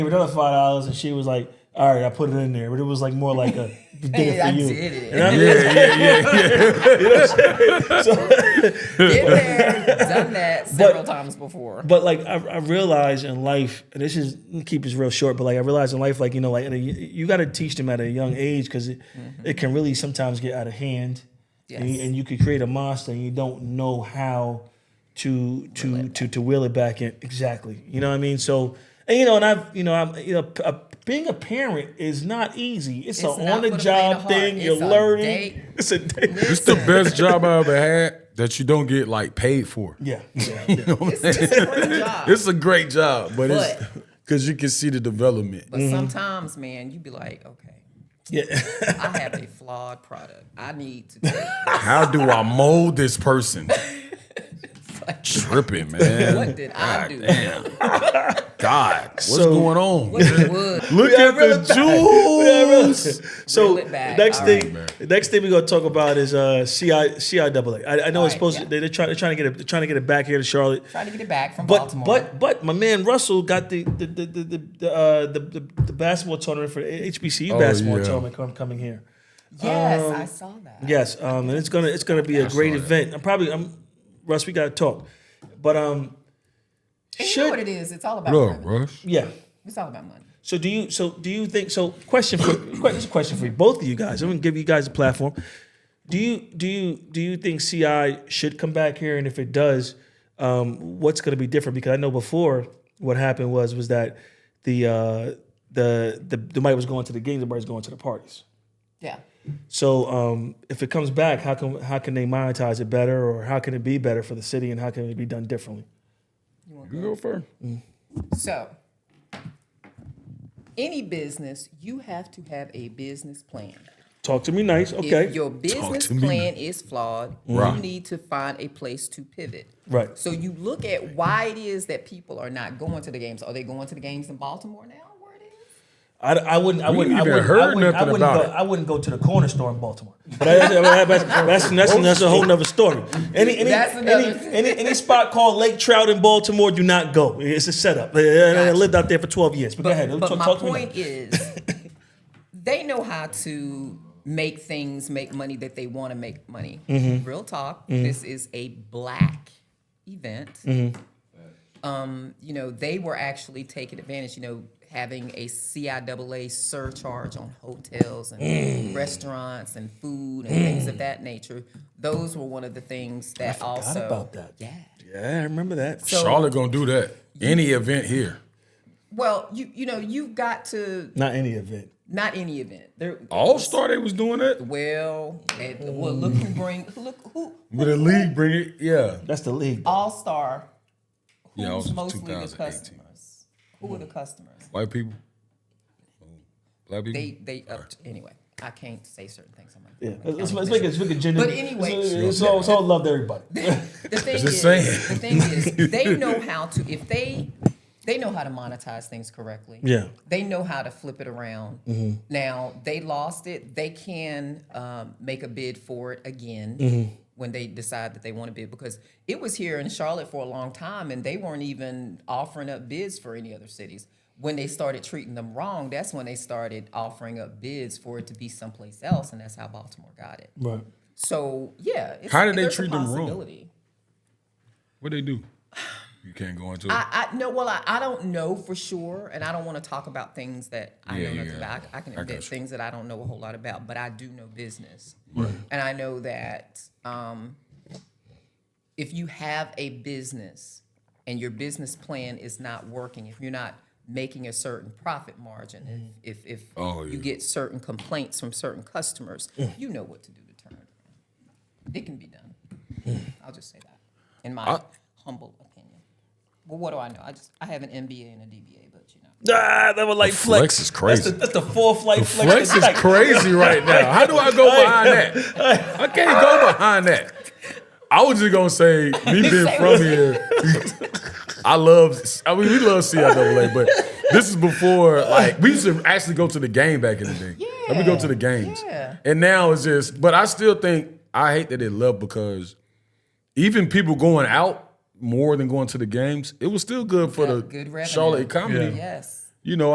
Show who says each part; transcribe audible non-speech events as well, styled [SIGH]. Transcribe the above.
Speaker 1: gave another five dollars, and she was like, "All right, I put it in there," but it was like more like
Speaker 2: [LAUGHS]
Speaker 1: a did it for
Speaker 2: I
Speaker 1: you.
Speaker 2: did it.
Speaker 1: You know what I mean?
Speaker 3: Yeah, yeah, yeah, yeah.
Speaker 2: Been there, done that several times before.
Speaker 1: But like I, I realize in life, and this is I'm gonna keep this real short, but like I realize in life, like you know, like at a, you got to teach them at a young age because it, it can really sometimes get out of hand, and, you,
Speaker 2: Mm-hmm. Yes.
Speaker 1: and you could create a monster, and you don't know how to to to to wheel it back in exactly. You know what I mean? So and you know, and I've you know, I'm you know. p- A, being a parent is not easy. It's,
Speaker 2: It's
Speaker 1: a
Speaker 2: not
Speaker 1: on the
Speaker 2: for the faint of
Speaker 1: job
Speaker 2: heart.
Speaker 1: thing. You're
Speaker 2: It's a
Speaker 1: learning.
Speaker 2: day-
Speaker 1: It's a day.
Speaker 2: [LAUGHS]
Speaker 3: It's the best job I ever had that you don't get like paid for.
Speaker 1: Yeah, yeah,
Speaker 2: [LAUGHS]
Speaker 1: yeah.
Speaker 2: It's, it's a great job.
Speaker 3: It's a great job, but, it's
Speaker 2: But-
Speaker 3: because you can see the development.
Speaker 2: But sometimes, man, you be like, okay,
Speaker 1: yeah.
Speaker 2: I have a flawed product. I need to take
Speaker 3: How do I mold this person? Tripping, man.
Speaker 2: What did I do?
Speaker 3: Damn. God, what's
Speaker 1: So-
Speaker 3: going on?
Speaker 2: what it would.
Speaker 3: Look at the jewels.
Speaker 1: So
Speaker 2: Reel it back.
Speaker 1: next
Speaker 2: All
Speaker 1: thing,
Speaker 3: right.
Speaker 1: the next thing we're gonna talk about is uh, CI CIAA. I, I know
Speaker 2: All
Speaker 1: it's
Speaker 2: right,
Speaker 1: supposed
Speaker 2: yeah.
Speaker 1: to, they're, trying they're trying to get it they're trying to get it back here to Charlotte,
Speaker 2: Trying to get it back from
Speaker 1: but
Speaker 2: Baltimore.
Speaker 1: but but my man Russell got the the the the the, the, uh, the, the, the basketball tournament for HBCU
Speaker 3: Oh,
Speaker 1: basketball
Speaker 3: yeah.
Speaker 1: tournament com- coming here.
Speaker 2: yes, I saw that.
Speaker 1: Yes, um, and it's gonna it's gonna be a great
Speaker 3: saw that.
Speaker 1: event. I'm probably I'm Russ. We gotta talk, but um,
Speaker 2: And you
Speaker 1: should
Speaker 2: know what it is? It's all about
Speaker 3: Look,
Speaker 2: money.
Speaker 3: Rush.
Speaker 1: yeah.
Speaker 2: It's all about money.
Speaker 1: So do you so do you think so question for que- this is a question for you, both of you guys. I'm gonna give you guys a platform. Do you do you do you think CI should come back here? And if it does, um, what's gonna be different? Because I know before what happened was was that the uh the the, the money was going to the games, the money was going to the parties.
Speaker 2: Yeah.
Speaker 1: So um, if it comes back, how can how can they monetize it better or how can it be better for the city and how can it be done differently?
Speaker 3: You go first.
Speaker 2: So, any business, you have to have a business plan.
Speaker 1: Talk to me nice,
Speaker 2: If
Speaker 1: okay.
Speaker 2: your business
Speaker 3: to me.
Speaker 2: plan is flawed,
Speaker 3: Right.
Speaker 2: you need to find a place to pivot.
Speaker 1: Right.
Speaker 2: So you look at why it is that people are not going to the games. Are they going to the games in Baltimore now? Where it is?
Speaker 1: I, I wouldn't. I
Speaker 3: We
Speaker 1: wouldn't. I
Speaker 3: ain't even
Speaker 1: wouldn't.
Speaker 3: heard
Speaker 1: I wouldn't, I
Speaker 3: nothing
Speaker 1: wouldn't
Speaker 3: about
Speaker 1: go,
Speaker 3: it.
Speaker 1: I wouldn't go to the corner store in Baltimore. [LAUGHS] But I- I- I- that's, that's, [LAUGHS] that's, that's a whole nother story. Any any,
Speaker 2: That's
Speaker 1: any,
Speaker 2: another-
Speaker 1: any any spot called Lake Trout in Baltimore, do not go. It's a setup. I- I, I
Speaker 2: Gotcha.
Speaker 1: lived out there for twelve years. But, go ahead.
Speaker 2: But
Speaker 1: talk,
Speaker 2: my
Speaker 1: talk to me
Speaker 2: point
Speaker 1: now. [LAUGHS]
Speaker 2: is, they know how to make things make money that they want to make money.
Speaker 1: Mm-hmm.
Speaker 2: Real talk. This is a black event.
Speaker 1: Mm-hmm.
Speaker 2: Um, you know, they were actually taking advantage. You know, having a CIAA surcharge on hotels and
Speaker 1: Mm.
Speaker 2: restaurants and food and things of that nature. Those were one of the things that also.
Speaker 1: about that.
Speaker 2: Yeah.
Speaker 1: Yeah, I remember that.
Speaker 2: So,
Speaker 3: Charlotte gonna do that. Any event here.
Speaker 2: well, you you know, you've got to
Speaker 1: Not any event.
Speaker 2: not any event. There
Speaker 3: All Star they was doing that.
Speaker 2: Well, at, well, look
Speaker 1: Mm.
Speaker 2: who bring look who
Speaker 3: With a league bring it. Yeah.
Speaker 1: That's the league.
Speaker 2: all star. Who's
Speaker 3: Yeah, I was in
Speaker 2: mostly the
Speaker 3: 2018.
Speaker 2: customers? Who are the customers?
Speaker 3: White people. Black people.
Speaker 2: They they up anyway. I can't say certain things. I'm like,
Speaker 1: Yeah. Let's, let's make it. Let's make it gender.
Speaker 2: But anyway-
Speaker 1: it's, it's all, it's all love to everybody.
Speaker 3: [LAUGHS]
Speaker 2: the thing
Speaker 3: Just
Speaker 2: is,
Speaker 3: saying.
Speaker 2: the thing
Speaker 3: [LAUGHS]
Speaker 2: is, they know how to if they they know how to monetize things correctly.
Speaker 1: Yeah.
Speaker 2: they know how to flip it around.
Speaker 3: Mm-hmm.
Speaker 2: Now they lost it. They can um, make a bid for it again
Speaker 3: Mm-hmm.
Speaker 2: when they decide that they want to bid because it was here in Charlotte for a long time, and they weren't even offering up bids for any other cities. When they started treating them wrong, that's when they started offering up bids for it to be someplace else, and that's how Baltimore got it.
Speaker 1: Right.
Speaker 2: So yeah, it's,
Speaker 3: How did they
Speaker 2: there's a
Speaker 3: treat them wrong?
Speaker 2: possibility.
Speaker 3: What they do? You can't go into it.
Speaker 2: I, I no, well, I, I don't know for sure, and I don't want to talk about things that I
Speaker 3: Yeah,
Speaker 2: know
Speaker 3: yeah,
Speaker 2: nothing
Speaker 3: yeah.
Speaker 2: about. I, I can
Speaker 3: I got
Speaker 2: admit
Speaker 3: you.
Speaker 2: things that I don't know a whole lot about, but I do know business, and I know that um, if you have a business and your business plan is not working, if you're not making a certain profit margin, if if, if
Speaker 3: Oh,
Speaker 2: you
Speaker 3: yeah.
Speaker 2: get certain complaints from certain customers, you know what to do to turn it around. It can be done. I'll just say that, in my
Speaker 3: I-
Speaker 2: humble opinion. Well, what do I know? I just I have an MBA and a DBA, but you know.
Speaker 1: Ah, that was like flex.
Speaker 3: flex is
Speaker 1: That's the,
Speaker 3: crazy.
Speaker 1: that's the fourth flight flex.
Speaker 3: Flex is
Speaker 2: [LAUGHS]
Speaker 3: crazy right now. How do I go behind that? I can't go behind that. I was just gonna say, me being from here, I love. I mean, we love CIAA, but this is before like we used to actually go to the game back in the day. Let me go to the games,
Speaker 2: Yeah.
Speaker 3: and now it's just. But I still think I hate that it left because even people going out more than going to the games, it was still good for
Speaker 2: Yeah,
Speaker 3: the
Speaker 2: good revenue.
Speaker 3: Charlotte economy.
Speaker 1: Yeah.
Speaker 2: Yes.
Speaker 3: You know,